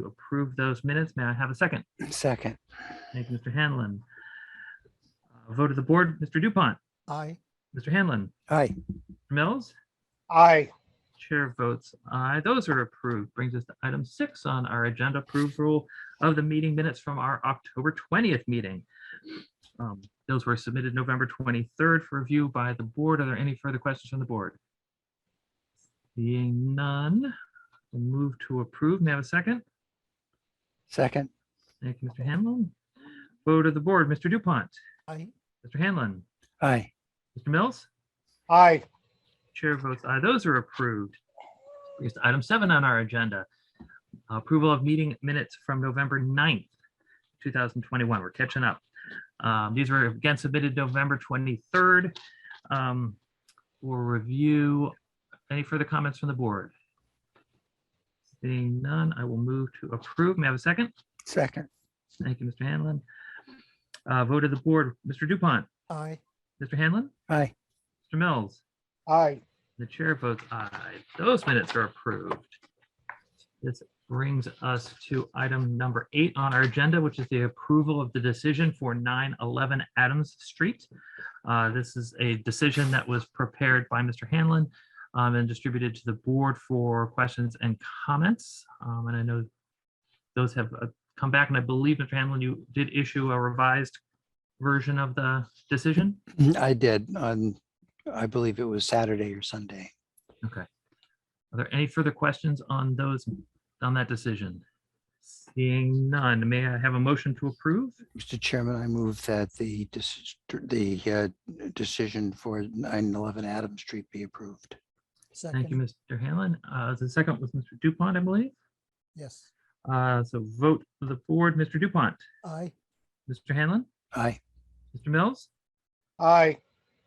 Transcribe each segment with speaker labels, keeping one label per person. Speaker 1: to approve those minutes. May I have a second?
Speaker 2: Second.
Speaker 1: Thank you, Mr. Hanlon. Uh, Vote of the board, Mr. Dupont,
Speaker 3: Aye.
Speaker 1: Mr. Hanlon,
Speaker 2: Aye.
Speaker 1: Mills,
Speaker 3: Aye.
Speaker 1: Chair votes aye. Those are approved. Brings us to item six on our agenda approval of the meeting minutes from our October 20th meeting. Um, Those were submitted November 23rd for review by the board. Are there any further questions from the board? Seeing none, we'll move to approve. May I have a second?
Speaker 2: Second.
Speaker 1: Thank you, Mr. Hanlon. Vote of the board, Mr. Dupont,
Speaker 3: Aye.
Speaker 1: Mr. Hanlon,
Speaker 2: Aye.
Speaker 1: Mr. Mills?
Speaker 3: Aye.
Speaker 1: Chair votes aye. Those are approved. Brings us to item seven on our agenda. Approval of meeting minutes from November 9th, two thousand twenty-one. We're catching up. Um, These were again submitted November twenty-third. For review, any further comments from the board? Seeing none, I will move to approve. May I have a second?
Speaker 2: Second.
Speaker 1: Thank you, Mr. Hanlon. Uh, Vote of the board, Mr. Dupont,
Speaker 3: Aye.
Speaker 1: Mr. Hanlon,
Speaker 2: Aye.
Speaker 1: Mr. Mills.
Speaker 3: Aye.
Speaker 1: The chair votes aye. Those minutes are approved. This brings us to item number eight on our agenda, which is the approval of the decision for 911 Adams Street. Uh, This is a decision that was prepared by Mr. Hanlon um, and distributed to the board for questions and comments. Um, And I know those have uh, come back, and I believe, Mr. Hanlon, you did issue a revised version of the decision?
Speaker 2: I did on, I believe it was Saturday or Sunday.
Speaker 1: Okay. Are there any further questions on those, on that decision? Seeing none, may I have a motion to approve?
Speaker 2: Mr. Chairman, I move that the, deci- the uh, decision for 911 Adams Street be approved.
Speaker 1: Thank you,
Speaker 3: Second.
Speaker 1: Mr. Hanlon. Uh, The second was Mr. Dupont, I believe.
Speaker 3: Yes.
Speaker 1: Uh, So vote for the board, Mr. Dupont,
Speaker 3: Aye.
Speaker 1: Mr. Hanlon,
Speaker 2: Aye.
Speaker 1: Mr. Mills,
Speaker 3: Aye.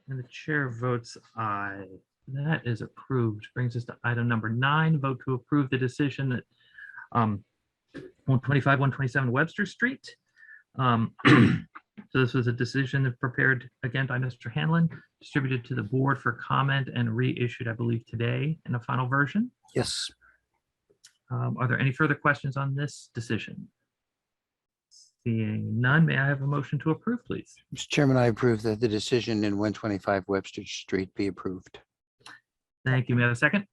Speaker 1: and the chair votes aye. That is approved. Brings us to item number nine, vote to approve the decision that um, 125, 127 Webster Street. Um, So this was a decision prepared again by Mr. Hanlon, distributed to the board for comment and reissued, I believe, today in a final version.
Speaker 2: Yes.
Speaker 1: Um, Are there any further questions on this decision? Seeing none, may I have a motion to approve, please?
Speaker 2: Mr. Chairman, I approve that the decision in 125 Webster Street be approved.
Speaker 1: Thank you. May I have a second?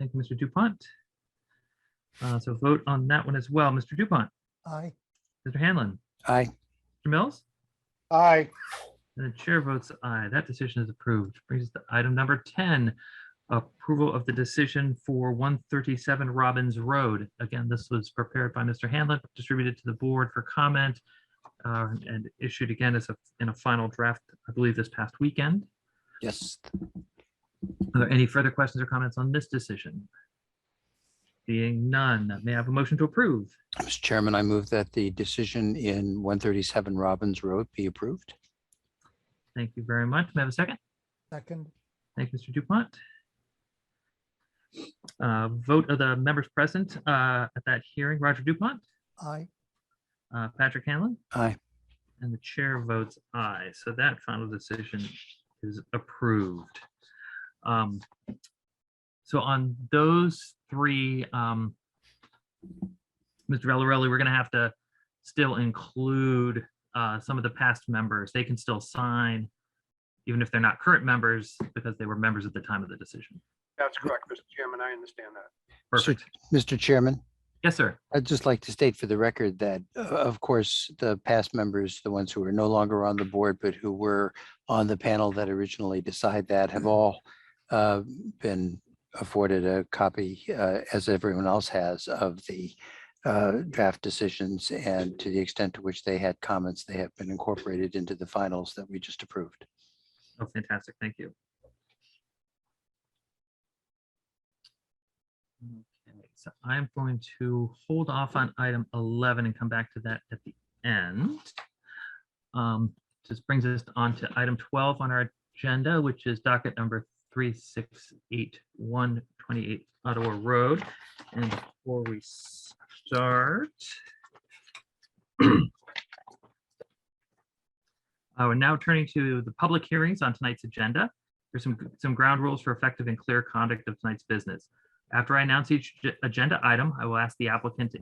Speaker 1: Thank you, Mr. Dupont. Uh, So vote on that one as well. Mr. Dupont,
Speaker 3: Aye.
Speaker 1: Mr. Hanlon,
Speaker 2: Aye.
Speaker 1: Mr. Mills?
Speaker 3: Aye.
Speaker 1: And the chair votes aye. That decision is approved. Brings us to item number 10, approval of the decision for 137 Robbins Road. Again, this was prepared by Mr. Hanlon, distributed to the board for comment uh, and issued again as a, in a final draft, I believe this past weekend.
Speaker 2: Yes.
Speaker 1: Are there any further questions or comments on this decision? Being none, may I have a motion to approve?
Speaker 2: Mr. Chairman, I move that the decision in 137 Robbins Road be approved.
Speaker 1: Thank you very much. May I have a second?
Speaker 3: Second.
Speaker 1: Thank you, Mr. Dupont. Uh, Vote of the members present uh, at that hearing, Roger Dupont,
Speaker 3: Aye.
Speaker 1: uh, Patrick Hanlon,
Speaker 2: Aye.
Speaker 1: and the chair votes aye. So that final decision is approved. Um, So on those three, um, Mr. Valorelli, we're going to have to still include uh, some of the past members. They can still sign, even if they're not current members, because they were members at the time of the decision.
Speaker 4: That's correct, Mr. Chairman. I understand that.
Speaker 1: Perfect.
Speaker 2: Mr. Chairman?
Speaker 1: Yes, sir.
Speaker 2: I'd just like to state for the record that, uh, of course, the past members, the ones who are no longer on the board, but who were on the panel that originally decided that have all uh, been afforded a copy, uh, as everyone else has, of the uh, draft decisions. And to the extent to which they had comments, they have been incorporated into the finals that we just approved.
Speaker 1: Oh, fantastic. Thank you. Okay, so I'm going to hold off on item 11 and come back to that at the end. Um, Just brings us on to item 12 on our agenda, which is docket number 3681 28 Ottawa Road. And before we start, Uh, We're now turning to the public hearings on tonight's agenda. There's some, some ground rules for effective and clear conduct of tonight's business. After I announce each ag- agenda item, I will ask the applicant to